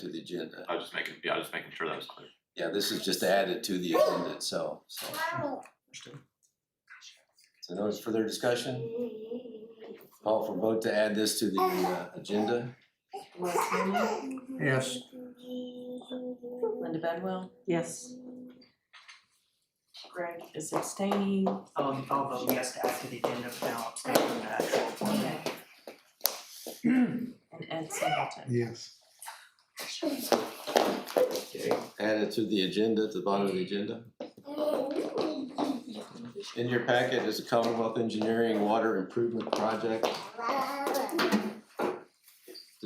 to the agenda. I was just making, yeah, I was just making sure that was clear. Yeah, this is just added to the agenda itself, so. So no further discussion? Call for vote to add this to the uh, agenda? Yes. Linda Bedwell Yes. Greg is abstaining. Um, I'll vote yes to add to the agenda, but now I'm staying from the actual format. And Ed Singleton. Yes. Added to the agenda, at the bottom of the agenda? In your packet is a Commonwealth Engineering Water Improvement Project to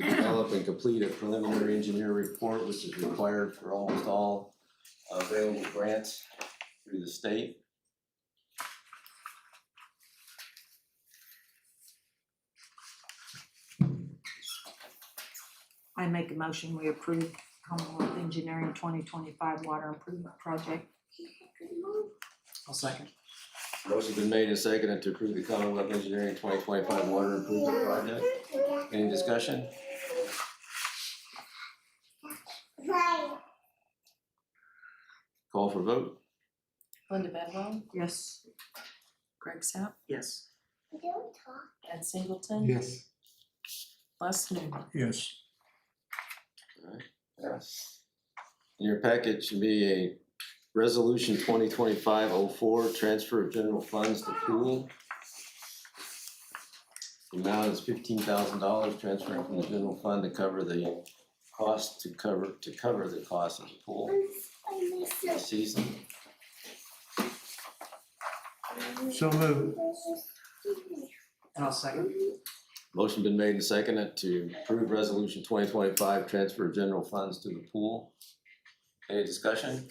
develop and complete a preliminary engineer report, which is required for almost all available grants through the state. I make a motion, we approve Commonwealth Engineering twenty twenty-five Water Improvement Project. I'll second. Motion's been made and seconded to approve the Commonwealth Engineering twenty twenty-five water improvement project. Any discussion? Call for vote? Linda Bedwell, Yes. Greg Sapp, Yes. Ed Singleton. Yes. Les Newman. Yes. Yes. In your packet should be a resolution twenty twenty-five oh four, transfer of general funds to pool. The amount is fifteen thousand dollars transferring from the general fund to cover the cost, to cover, to cover the cost of the pool this season. So moved. And I'll second. Motion been made and seconded to approve resolution twenty twenty-five, transfer of general funds to the pool. Any discussion?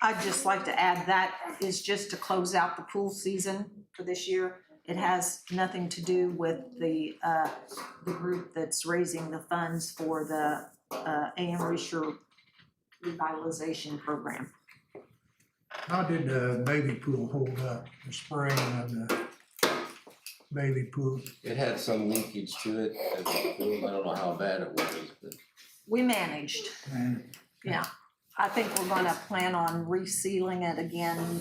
I'd just like to add that is just to close out the pool season for this year. It has nothing to do with the, uh, the group that's raising the funds for the, uh, AM Reacher revitalization program. How did the baby pool hold up, the spring of the baby pool? It had some leakage to it, at the pool. I don't know how bad it was, but We managed. And I think we're gonna plan on resealing it again,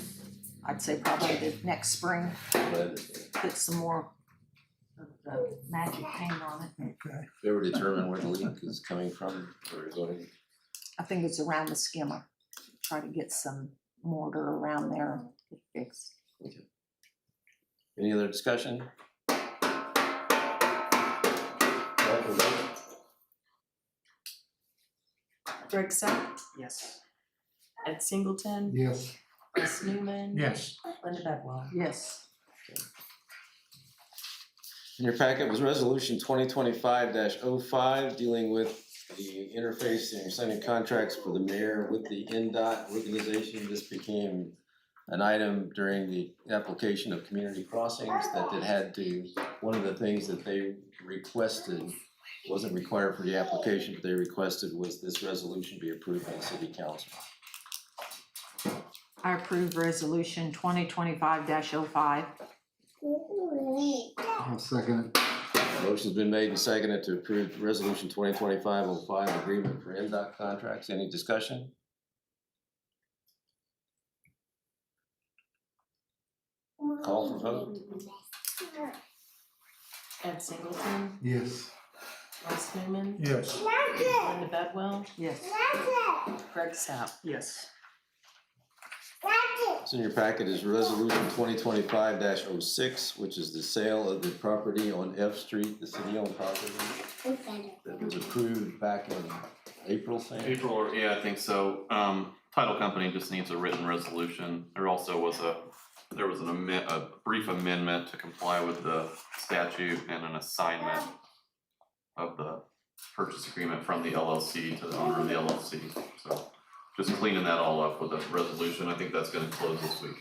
I'd say probably the next spring. but put some more of the magic paint on it. Okay, they were determined where the leak is coming from, or going, I think it's around the skimmer. Try to get some mortar around there to fix. any other discussion? Call for vote? Greg Sapp, Yes. Ed Singleton, yes. Les Newman. Yes. Linda Bedwell. Yes. In your packet was resolution twenty twenty-five 5 dealing with the interface and signing contracts for the mayor with the NDOT organization. This became an item during the application of community crossings that it had to, one of the things that they requested wasn't required for the application, but they requested was this resolution be approved by the city council. I approve resolution twenty twenty-five oh 5 I'll second it. Motion's been made and seconded to approve resolution twenty twenty-five oh five agreement for NDOT contracts. Any discussion? Call for vote? Ed Singleton, Yes. Les Newman. Yes. Linda Bedwell, Yes. Greg Sapp. Yes. What's in your packet is resolution twenty twenty-five 6 which is the sale of the property on F Street, the city-owned property that was approved back in April, Sam? April, or- yeah, I think so. Um, title company just needs a written resolution. There also was a, there was an amend, a brief amendment to comply with the statute and an assignment of the purchase agreement from the LLC to the owner of the LLC. So just cleaning that all up with a resolution. I think that's gonna close this week.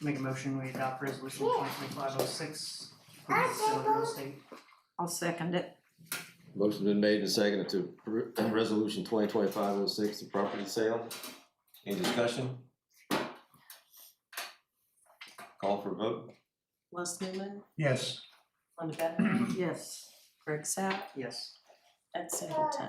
Make a motion, we adopt resolution twenty twenty-five oh six for the sale of real estate. I'll second it. Motion's been made and seconded to appro- resolution twenty twenty-five oh six, the property sale. Any discussion? Call for vote? Les Newman, Yes. Linda Bedwell, Yes. Greg Sapp, Yes. Ed Singleton.